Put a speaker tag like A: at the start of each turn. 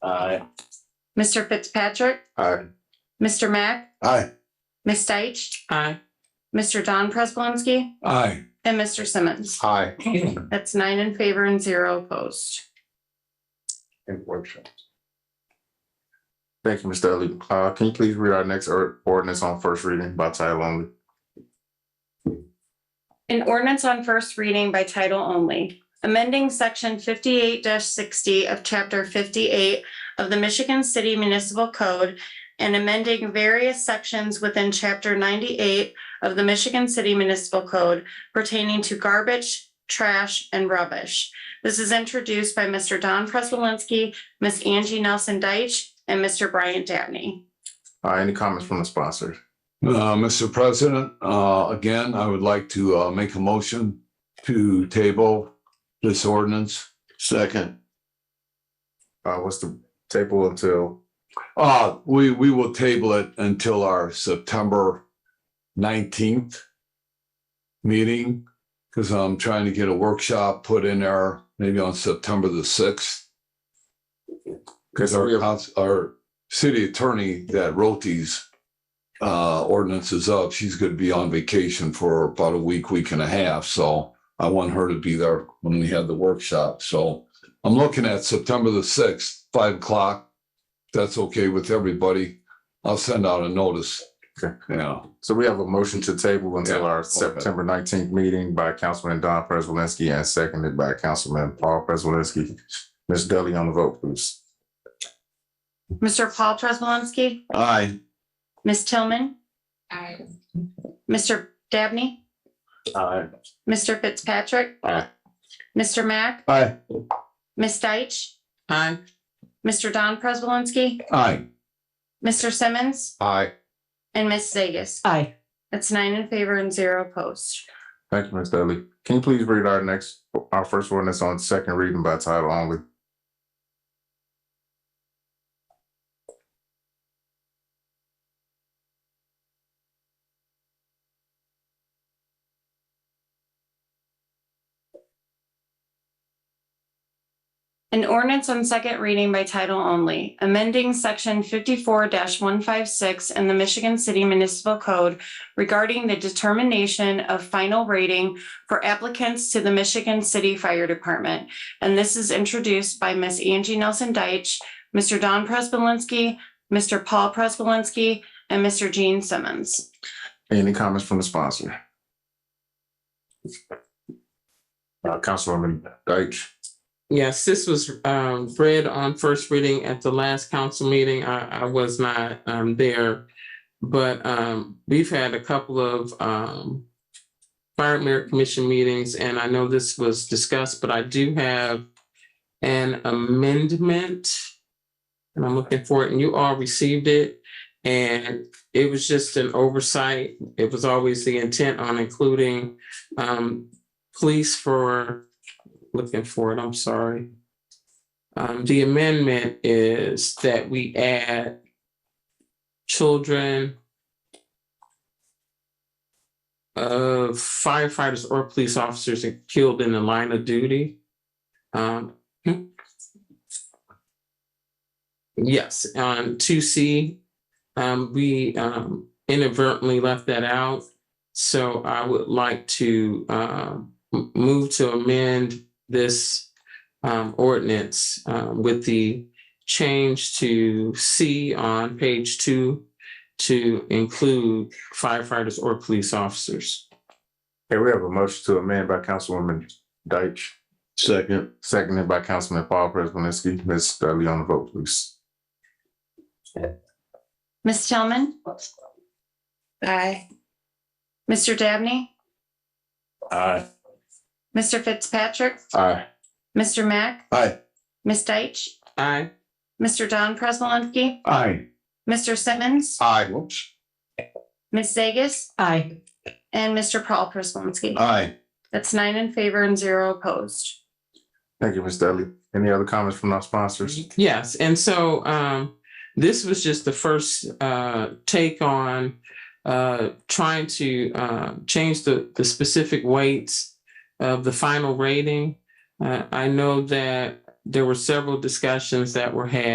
A: Aye.
B: Mr. Fitzpatrick,
A: Aye.
B: Mr. Mack,
A: Aye.
B: Ms. Deitch,
C: Aye.
B: Mr. Don Prespolinski,
A: Aye.
B: and Mr. Simmons.
A: Aye.
B: That's nine in favor and zero opposed.
A: Unfortunate.
D: Thank you, Mr. Elliott. Uh, can you please read our next or- ordinance on first reading by title only?
B: An ordinance on first reading by title only, amending section fifty-eight sixty of chapter fifty-eight of the Michigan City Municipal Code and amending various sections within chapter ninety-eight of the Michigan City Municipal Code pertaining to garbage, trash, and rubbish. This is introduced by Mr. Don Prespolinski, Ms. Angie Nelson Deitch, and Mr. Brian Dabney.
D: Uh, any comments from the sponsor?
E: Uh, Mr. President, uh, again, I would like to, uh, make a motion to table this ordinance.
A: Second.
D: Uh, what's the table until,
E: Uh, we, we will table it until our September nineteenth meeting, because I'm trying to get a workshop put in there, maybe on September the sixth. Because our, cons- our city attorney that wrote these uh, ordinances up, she's gonna be on vacation for about a week, week and a half, so I want her to be there when we have the workshop, so I'm looking at September the sixth, five o'clock that's okay with everybody, I'll send out a notice.
D: Okay.
E: Yeah,
D: so we have a motion to table until
E: Yeah.
D: our September nineteenth meeting by Councilman Don Prespolinski and seconded by Councilman Paul Prespolinski. Ms. Dudley on the vote, please.
B: Mr. Paul Prespolinski,
A: Aye.
B: Ms. Tillman,
C: Aye.
B: Mr. Dabney.
A: Aye.
B: Mr. Fitzpatrick.
A: Aye.
B: Mr. Mack,
A: Aye.
B: Ms. Deitch,
C: Aye.
B: Mr. Don Prespolinski,
E: aye,
B: Mr. Simmons,
D: Aye.
B: and Ms. Zegas.
C: Aye.
B: That's nine in favor and zero opposed.
D: Thank you, Ms. Dudley. Can you please read our next, our first ordinance on second reading by title only?
B: An ordinance on second reading by title only, amending section fifty-four one five six in the Michigan City Municipal Code regarding the determination of final rating for applicants to the Michigan City Fire Department. And this is introduced by Ms. Angie Nelson Deitch, Mr. Don Prespolinski, Mr. Paul Prespolinski, and Mr. Gene Simmons.
D: Any comments from the sponsor? Uh, Councilwoman Deitch.
C: Yes, this was um read on first reading at the last council meeting. I I was not um there. But um we've had a couple of um fire merit commission meetings, and I know this was discussed, but I do have an amendment. And I'm looking for it, and you all received it. And it was just an oversight. It was always the intent on including um police for looking for it, I'm sorry. Um, the amendment is that we add children of firefighters or police officers killed in the line of duty. Um, hmm. yes, on two C, um, we, um, inadvertently left that out. So I would like to, um, m- move to amend this um, ordinance um, with the change to C on page two to include firefighters or police officers.
D: Okay, we have a motion to amend by Councilwoman Deitch,
A: Second.
D: seconded by Councilman Paul Prespolinski. Ms. Dudley on the vote, please.
B: Ms. Tillman? Aye. Mr. Dabney?
A: Aye.
B: Mr. Fitzpatrick?
D: Aye.
B: Mr. Mack?
A: Aye.
B: Ms. Deitch?
C: Aye.
B: Mr. Don Prespolinski?
E: aye.
B: Mr. Simmons?
D: Aye.
B: Ms. Zegas?
C: Aye.
B: And Mr. Paul Prespolinski?
A: Aye.
B: That's nine in favor and zero opposed.
D: Thank you, Ms. Dudley. Any other comments from our sponsors?
C: Yes, and so um, this was just the first uh, take on uh, trying to uh, change the, the specific weights of the final rating. Uh, I know that there were several discussions that were had